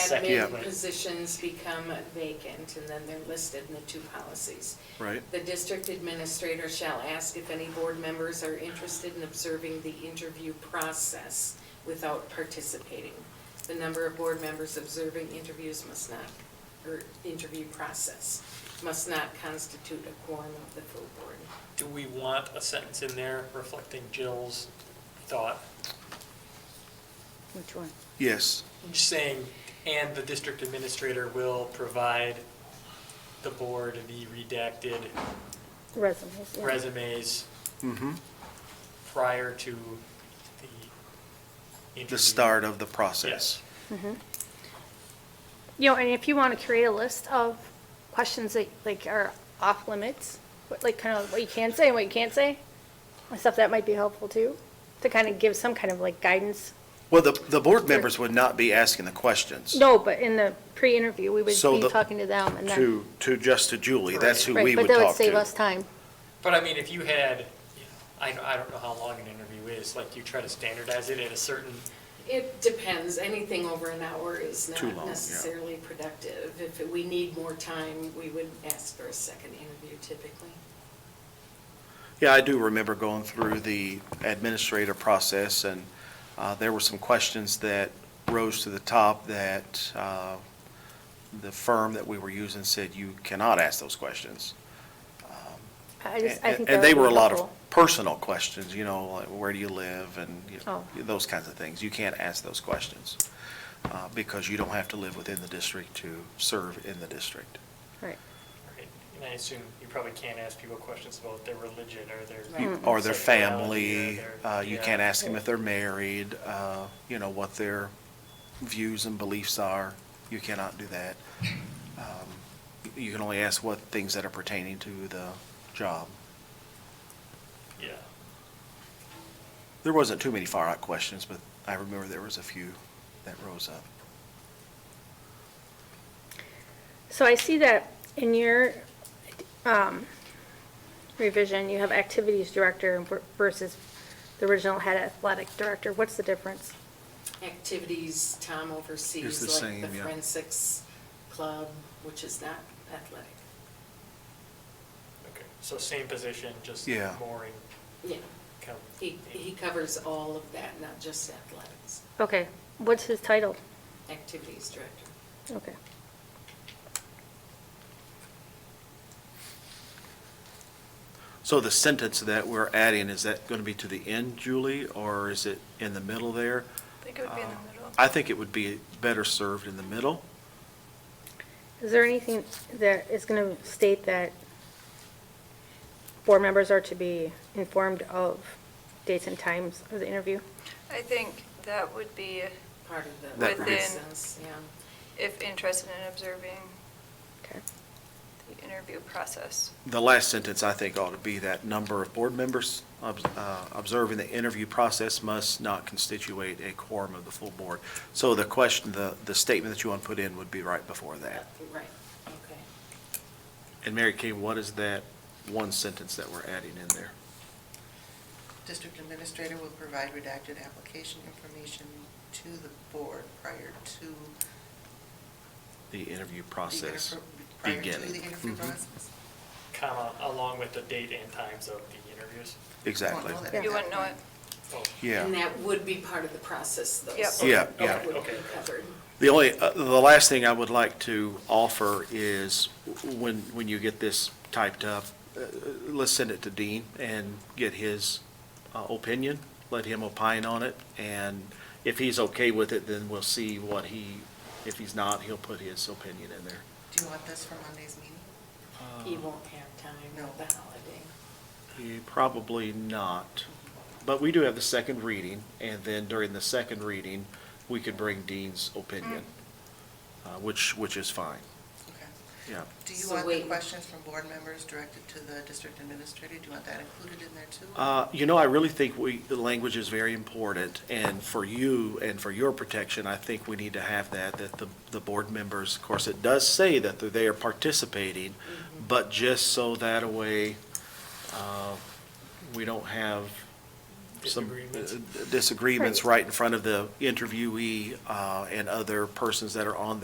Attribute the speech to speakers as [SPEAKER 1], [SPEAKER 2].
[SPEAKER 1] second
[SPEAKER 2] admin
[SPEAKER 1] one.
[SPEAKER 2] positions become vacant, and then they're listed in the two policies.
[SPEAKER 3] right?
[SPEAKER 2] The district administrator shall ask if any board members are interested in observing the interview process without participating. The number of board members observing interviews must not, or interview process, must not constitute a quorum of the full board.
[SPEAKER 1] Do we want a sentence in there reflecting Jill's thought?
[SPEAKER 4] Which one?
[SPEAKER 3] Yes,
[SPEAKER 1] Just saying, and the district administrator will provide the board the redacted
[SPEAKER 4] Resumes. yeah.
[SPEAKER 1] resumes
[SPEAKER 3] mm-hmm,
[SPEAKER 1] prior to the interview.
[SPEAKER 3] the start of the process.
[SPEAKER 1] Yes.
[SPEAKER 4] Mhm. You know, and if you want to create a list of questions that like are off limits, what- like kind of what you can say and what you can't say, and stuff that might be helpful too, to kind of give some kind of like guidance.
[SPEAKER 3] Well, the, the board members would not be asking the questions.
[SPEAKER 4] No, but in the pre-interview, we would
[SPEAKER 3] So
[SPEAKER 4] be
[SPEAKER 3] the-
[SPEAKER 4] talking to them and then.
[SPEAKER 3] To, to just to Julie, that's who
[SPEAKER 4] Right,
[SPEAKER 3] we would
[SPEAKER 4] But that
[SPEAKER 3] talk
[SPEAKER 4] would save us
[SPEAKER 3] to.
[SPEAKER 4] time.
[SPEAKER 1] But I mean, if you had, you know, I, don't- I don't know how long an interview is, like you try to standardize it at a certain,
[SPEAKER 2] It depends, anything over an hour is
[SPEAKER 3] Too long,
[SPEAKER 2] not
[SPEAKER 3] yeah.
[SPEAKER 2] necessarily productive. If we need more time, we would ask for a second interview typically.
[SPEAKER 3] Yeah, I do remember going through the administrator process, and uh, there were some questions that rose to the top that uh, the firm that we were using said, you cannot ask those questions.
[SPEAKER 4] I just, I
[SPEAKER 3] And-
[SPEAKER 4] think that
[SPEAKER 3] And they
[SPEAKER 4] would
[SPEAKER 3] were a
[SPEAKER 4] be
[SPEAKER 3] lot of
[SPEAKER 4] helpful.
[SPEAKER 3] personal questions, you know, like where do you live and you know,
[SPEAKER 4] Oh.
[SPEAKER 3] those kinds of things. You can't ask those questions uh, because you don't have to live within the district to serve in the district.
[SPEAKER 4] Right.
[SPEAKER 1] right? and I assume you probably can't ask people questions about their religion or their.
[SPEAKER 2] You-
[SPEAKER 4] Mm-hmm.
[SPEAKER 3] Or their
[SPEAKER 1] sexuality
[SPEAKER 3] family,
[SPEAKER 1] or their-
[SPEAKER 3] uh, you
[SPEAKER 1] yeah.
[SPEAKER 3] can't ask them if they're married, uh, you know, what their views and beliefs are. You cannot do that. Um, You can only ask what things that are pertaining to the job.
[SPEAKER 1] Yeah.
[SPEAKER 3] There wasn't too many far out questions, but I remember there was a few that rose up.
[SPEAKER 4] So I see that in your um, revision, you have activities director versus the original head athletic director. What's the difference?
[SPEAKER 2] activities Tom
[SPEAKER 3] It's the
[SPEAKER 2] oversees, like the
[SPEAKER 3] same, yeah.
[SPEAKER 2] forensics club, which is not athletic.
[SPEAKER 1] Okay, so same position, just
[SPEAKER 3] Yeah.
[SPEAKER 1] mooring
[SPEAKER 2] Yeah,
[SPEAKER 1] come.
[SPEAKER 2] he, he covers all of that, not just athletics,
[SPEAKER 4] Okay, what's his title?
[SPEAKER 2] activities director.
[SPEAKER 4] Okay.
[SPEAKER 3] So the sentence that we're adding, is that going to be to the end, Julie, or is it in the middle there? Uh,
[SPEAKER 5] I think it would be in the middle.
[SPEAKER 3] I think it would be better served in the middle.
[SPEAKER 4] Is there anything that is going to state that board members are to be informed of dates and times of the interview?
[SPEAKER 5] I think that would be
[SPEAKER 2] Part of the
[SPEAKER 3] That would be-
[SPEAKER 2] process, yeah.
[SPEAKER 5] if interested in observing
[SPEAKER 4] Okay.
[SPEAKER 5] the interview process.
[SPEAKER 3] The last sentence, I think, ought to be that number of board members obs- uh, observing the interview process must not constitute a quorum of the full board. So the question, the, the statement that you want to put in would be right before that.
[SPEAKER 2] Right, okay.
[SPEAKER 3] And Mary Kay, what is that one sentence that we're adding in there?
[SPEAKER 6] District administrator will provide redacted application information to the board prior to. the
[SPEAKER 3] The interview process
[SPEAKER 6] interfer- Prior
[SPEAKER 3] beginning.
[SPEAKER 6] to the interview
[SPEAKER 3] Mhm.
[SPEAKER 6] process.
[SPEAKER 1] Comma, along with the date and times of the interviews.
[SPEAKER 3] Exactly.
[SPEAKER 6] Won't know that at
[SPEAKER 5] You
[SPEAKER 6] that
[SPEAKER 5] wouldn't know
[SPEAKER 6] point.
[SPEAKER 5] it.
[SPEAKER 1] Oh,
[SPEAKER 3] Yeah.
[SPEAKER 2] And that would be part of the process, though.
[SPEAKER 5] Yep.
[SPEAKER 2] so
[SPEAKER 3] Yeah,
[SPEAKER 2] that
[SPEAKER 3] yeah.
[SPEAKER 2] would be
[SPEAKER 1] Okay.
[SPEAKER 2] covered.
[SPEAKER 3] The only, uh, the last thing I would like to offer is, w- when, when you get this typed up, uh, let's send it to Dean and get his uh, opinion, let him opine on it, and if he's okay with it, then we'll see what he, if he's not, he'll put his opinion in there.
[SPEAKER 6] Do you want this for Monday's meeting?
[SPEAKER 2] He won't have time
[SPEAKER 6] No.
[SPEAKER 2] with the holiday.
[SPEAKER 3] Yeah, Probably not, but we do have the second reading, and then during the second reading, we could bring Dean's opinion, uh, which, which is fine,
[SPEAKER 6] Okay.
[SPEAKER 3] yeah.
[SPEAKER 6] Do you
[SPEAKER 2] So
[SPEAKER 6] want the
[SPEAKER 2] wait.
[SPEAKER 6] questions from board members directed to the district administrator? Do you want that included in there too?
[SPEAKER 3] Uh, You know, I really think we, the language is very important, and for you and for your protection, I think we need to have that, that the, the board members, of course, it does say that they're- they are participating, but just so that a way, uh, we don't have some
[SPEAKER 1] Disagreements.
[SPEAKER 3] disagreements right in front of the interviewee uh, and uh, other persons that are on